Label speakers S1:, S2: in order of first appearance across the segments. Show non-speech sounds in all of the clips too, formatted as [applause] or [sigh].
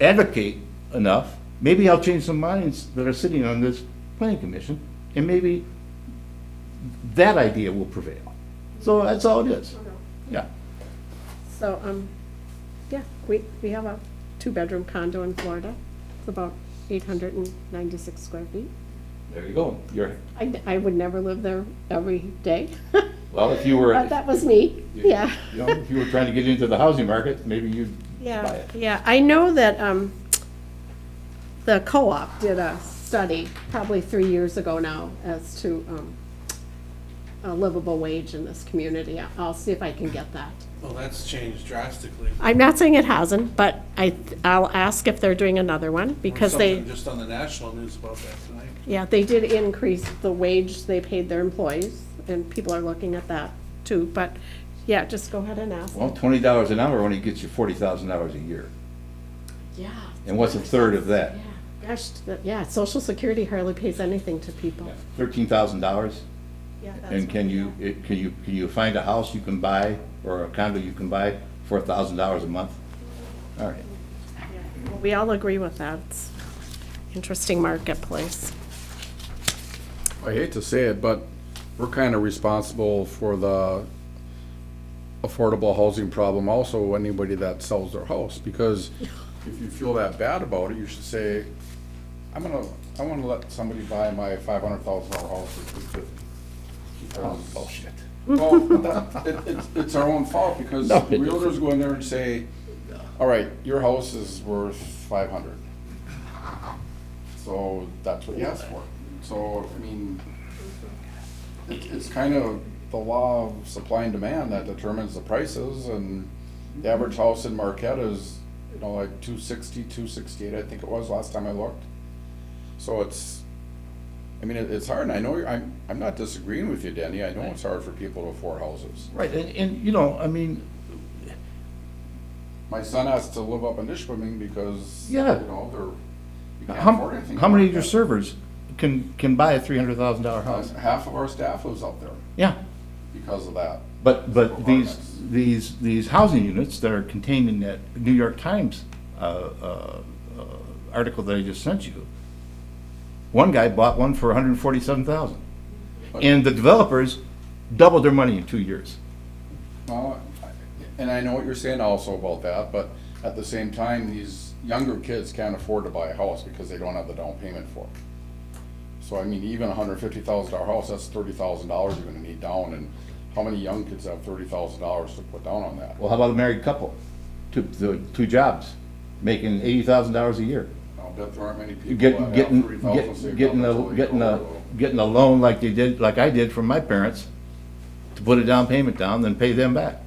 S1: advocate enough, maybe I'll change some minds that are sitting on this planning commission, and maybe that idea will prevail. So that's all it is. Yeah.
S2: So, um, yeah, we, we have a two-bedroom condo in Florida. It's about eight hundred and ninety-six square feet.
S3: There you go. You're,
S2: I, I would never live there every day. [laughs]
S3: well, if you were,
S2: But that was me, yeah.
S3: you know, if you were trying to get into the housing market, maybe you'd buy
S2: [laughs] Yeah,
S3: it.
S2: yeah, I know that, um, the co-op did a study probably three years ago now as to, um, a livable wage in this community. I'll see if I can get that.
S4: Well, that's changed drastically.
S2: I'm not saying it hasn't, but I, I'll ask if they're doing another one because they.
S4: Something just on the national news about that tonight.
S2: Yeah, they did increase the wage they paid their employees, and people are looking at that too, but, yeah, just go ahead and ask.
S1: Well, twenty dollars an hour only gets you forty thousand dollars a year.
S2: Yeah.
S1: And what's a third of that?
S2: Yeah, Gosh, the- yeah, social security hardly pays anything to people.
S1: Thirteen thousand dollars?
S2: Yeah, that's
S1: And can you, it- can you, can you find a house you can buy or a condo you can buy for a thousand dollars a month? All right.
S2: what- We all agree with that. It's Interesting marketplace.
S5: I hate to say it, but we're kind of responsible for the affordable housing problem also, anybody that sells their house, because if you feel that bad about it, you should say, I'm gonna, I wanna let somebody buy my five hundred thousand dollar house for two fifty.
S1: Bullshit.
S5: Well, that- it, it's, it's our own fault, because
S1: No, it
S5: realtors go in there and say, all right, your house is worth five hundred. So that's what you asked for. So, I mean, it, it's kind of the law of supply and demand that determines the prices, and the average house in Marquette is, you know, like two sixty, two sixty-eight, I think it was last time I looked. So it's, I mean, it, it's hard, and I know, you're- I'm, I'm not disagreeing with you, Denny, I know it's hard for people to afford houses.
S1: Right, and, and, you know, I mean,
S5: My son has to live up in Nishwaming because, you
S1: Yeah.
S5: know, they're, you can't afford
S1: how,
S5: anything.
S1: how many
S5: like
S1: of your
S5: that.
S1: servers can, can buy a three hundred thousand dollar house?
S5: Half of our staff lives up there
S1: Yeah,
S5: because of that.
S1: but, but these,
S5: Apartments.
S1: these, these housing units that are contained in that New York Times, uh, uh, uh, article that I just sent you, one guy bought one for hundred and forty-seven thousand. And the developers doubled their money in two years.
S5: Well, I- and I know what you're saying also about that, but at the same time, these younger kids can't afford to buy a house because they don't have the down payment for it. So I mean, even a hundred fifty thousand dollar house, that's thirty thousand dollars you're gonna need down, and how many young kids have thirty thousand dollars to put down on that?
S1: Well, how about a married couple? Two, the, two jobs, making eighty thousand dollars a year.
S5: I'll bet there aren't many people that
S1: Getting,
S5: have
S1: getting,
S5: thirty thousand
S1: get-
S5: saved up
S1: getting a,
S5: until they
S1: getting
S5: go
S1: a,
S5: to-
S1: getting a loan like they did, like I did from my parents, to put a down payment down, then pay them back.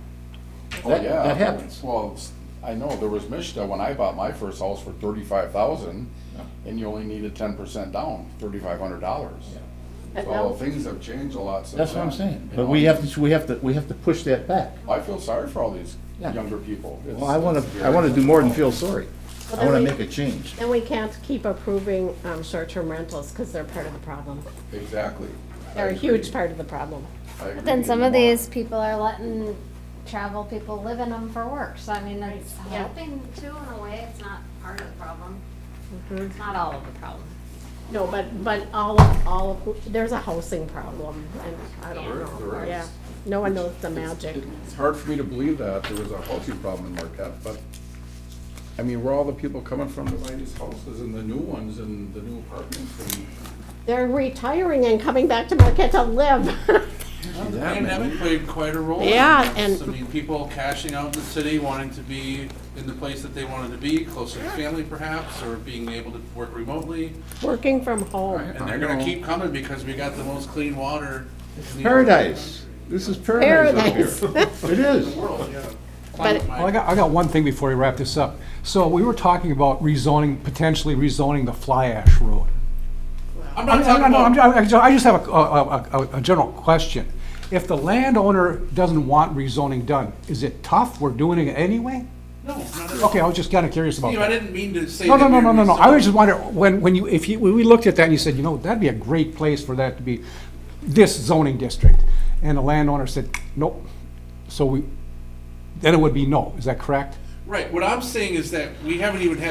S5: Oh,
S1: That-
S5: yeah.
S1: that happens.
S5: Well, s- I know, there was Mishta, when I bought my first house for thirty-five thousand, and you only needed ten percent down, thirty-five hundred dollars.
S2: And
S5: So
S2: now-
S5: things have changed a lot since
S1: That's what I'm
S5: then,
S1: saying.
S5: you
S1: But
S5: know?
S1: we have to, we have to, we have to push that back.
S5: I feel sorry for all these
S1: Yeah.
S5: younger people. It's-
S1: Well, I wanna,
S5: it's
S1: I wanna
S5: very
S1: do more than feel
S5: difficult.
S1: sorry.
S2: Well,
S1: I wanna
S2: then
S1: make
S2: we-
S1: a change.
S2: Then we can't keep approving, um, short-term rentals because they're part of the problem.
S5: Exactly.
S2: They're a huge part of the problem.
S5: But
S6: Then some of these people are letting travel people live in them for work, so I mean, it's
S2: Yeah.
S6: helping too in a way, it's not part of the problem. It's not all of the problem.
S2: No, but, but all of, all of, there's a housing problem, and I don't
S5: There is,
S2: know,
S5: there is.
S2: yeah. No one knows the magic.
S5: It's hard for me to believe that there was a housing problem in Marquette, but, I mean, where are all the people coming from to buy these houses and the new ones and the new apartments and
S2: They're retiring and coming back to Marquette to live. [laughs]
S4: The pandemic played quite a role. in
S2: Yeah,
S4: this.
S2: and-
S4: I mean, people cashing out in the city, wanting to be in the place that they wanted to be, closer to family perhaps, or being able to work remotely.
S2: Working from home.
S4: And they're gonna keep coming because we got the most clean water. in the
S1: Paradise. This is paradise up
S2: Paradise.
S1: here. It is.
S4: World, yeah.
S2: But-
S4: Climate-
S7: Well, I got, I got one thing before we wrap this up. So we were talking about rezoning, potentially rezoning the Fly Ash Road.
S4: I'm
S7: I'm-
S4: not talking
S7: I'm- I'm-
S4: about,
S7: I'm- I just- I just have a, a, a- a general question. If the landowner doesn't want rezoning done, is it tough? We're doing it anyway?
S4: no, not at all.
S7: Okay, I was just kinda curious about
S4: Steve, I
S7: that.
S4: didn't mean to say.
S7: No, no,
S4: that
S7: no,
S4: you're
S7: no, no, no. I
S4: reselling.
S7: was just wondering, when, when you, if you, when we looked at that and you said, you know, that'd be a great place for that to be, this zoning district. And the landowner said, nope. So we, then it would be no. Is that correct?
S4: Right, what I'm saying is that we haven't even had